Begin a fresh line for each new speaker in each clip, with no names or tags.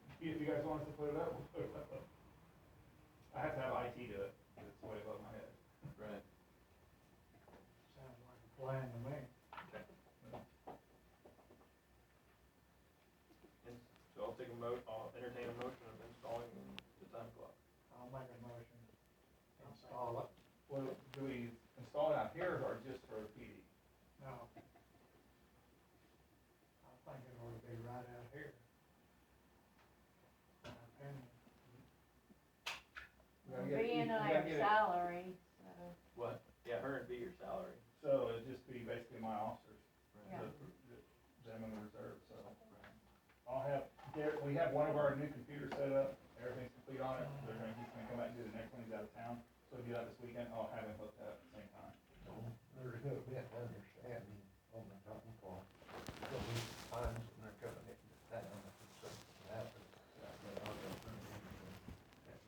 else to put it up, we'll put it up. I have to have IT do it, 'cause it's way above my head.
Right.
Sounds like a plan to me.
And So I'll take a mo, I'll entertain a motion of installing the time clock.
I'll make a motion to install it.
Well, do we install it out here or just for PD?
No. I think it ought to be right out here. My opinion.
We gotta get-
B and
we
I
gotta
are
get it-
salary, so,
What? Yeah, her and be your salary.
So it'd just be basically my officers,
Yeah.
the, the- them in the reserve, so. um, I'll have, there, we have one of our new computers set up, everything's complete on it, they're gonna, he's gonna come back and do the next one, he's out of town. So if you out this weekend, I'll have him hooked up at the same time.
There's a bit of understanding on the top part, so these times when they're coming into town, if it's something happens, they're not gonna turn it in and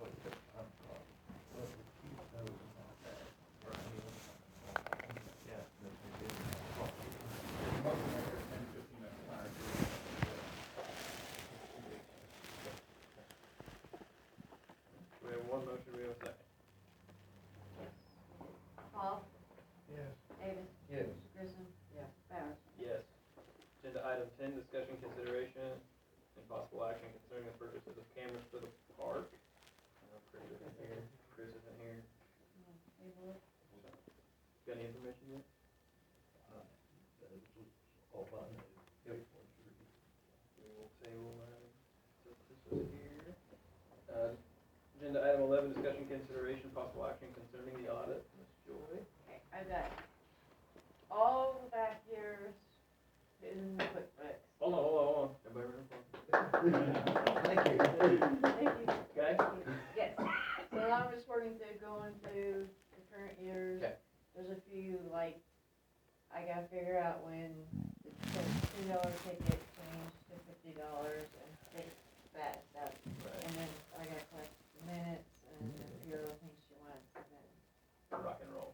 put the time clock. But we keep those on that.
Yeah.
That they didn't have clock in.
Most of them are 10, 15 minutes behind.
We have one motion, we have a second.
yes. Paul,
Yes,
Davis,
Yes,
Grissom. Yes. Bowers.
Yes. Agenda item ten, discussion consideration and possible action concerning the purchases of cameras for the park. I know Chris isn't here, Chris isn't here.
Abel,
Got any information yet?
uh, that was all I knew. It was really
We will table that, since this was here. Uh, agenda item eleven, discussion consideration, possible action concerning the audit. Ms. Joy?
Okay, I've got all the back years in QuickBooks.
Hold on, hold on, hold on. Everybody remember?
Thank you.
Okay?
Yes, so I'm just working through, going through the current years.
Okay.
There's a few, like, I gotta figure out when the two dollar ticket changed to fifty dollars and fix that stuff. And then I gotta collect minutes and
Mm-hmm.
a few other things she wants, and then
Right. Rock and roll.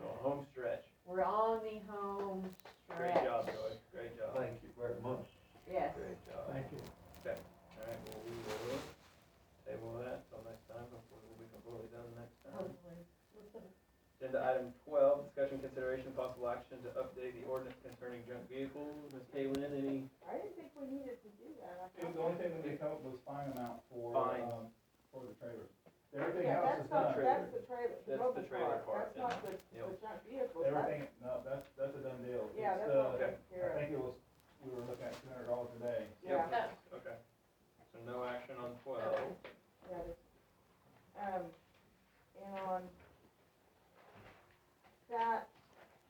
So home stretch.
we're on the home
Great
stretch.
job, Joy. Great job.
Thank you very much.
Yes,
Great job.
thank you.
Alright, well, we will table that till next time. Hopefully we'll be completely done next time.
hopefully.
Agenda item twelve, discussion consideration possible action to update the ordinance concerning junk vehicles. Ms. Kaylin, any
I didn't think we needed to do that. I
It was the
thought-
only thing that they come up was fine amount for,
Fines.
um, for the trailers. Everything
Yeah,
else
that's
is
not,
done.
trailer.
that's the trailer, the
That's
mobile
the trailer part,
part, that's not the,
yeah.
the junk vehicle, that's,
Everything, no, that's, that's a done deal.
yeah,
It's,
that's
uh,
all taken care
I
of.
think it was, we were looking at two hundred dollars a day.
Yeah,
No,
Okay. So no action on twelve.
yeah, that's, um, and on that,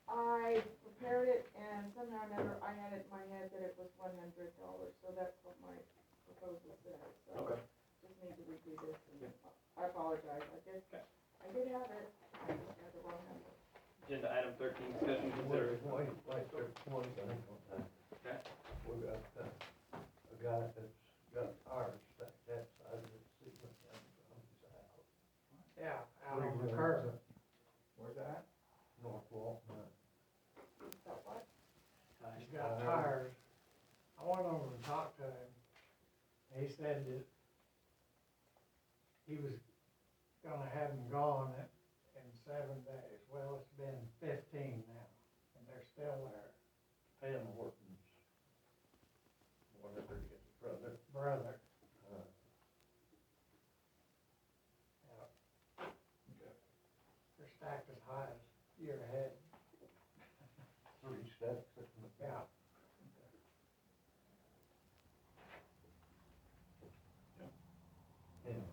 I prepared it and somehow or another, I had it in my head that it was one hundred dollars, so that's what my proposal said, so.
Okay.
Just need to redo this, and I apologize, I did, I did have it, I just had the wrong number.
Agenda item thirteen, discussion
Wait,
consideration.
wait, wait, there's one thing on that.
Okay.
We got, uh, a guy that's got tires stuck that side of the seat when he comes out.
Yeah, out on the curb.
Where's that?
North Walton, uh,
That what?
He's got tires. I went over and talked to him. He said that he was gonna have them gone in- in seven days. Well, it's been fifteen now, and they're still there.
Pam Horton's, whatever his brother,
Brother,
uh,
yeah. They're stacked as high as your head,
three steps in the back.
yeah.
Anyway,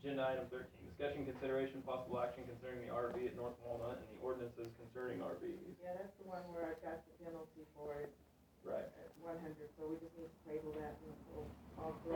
Agenda item thirteen, discussion consideration possible action concerning the RV at North Walnut and the ordinances concerning RVs.
Yeah, that's the one where I got the penalty for it
Right.
at one hundred, so we just need to table that and we'll, I'll correct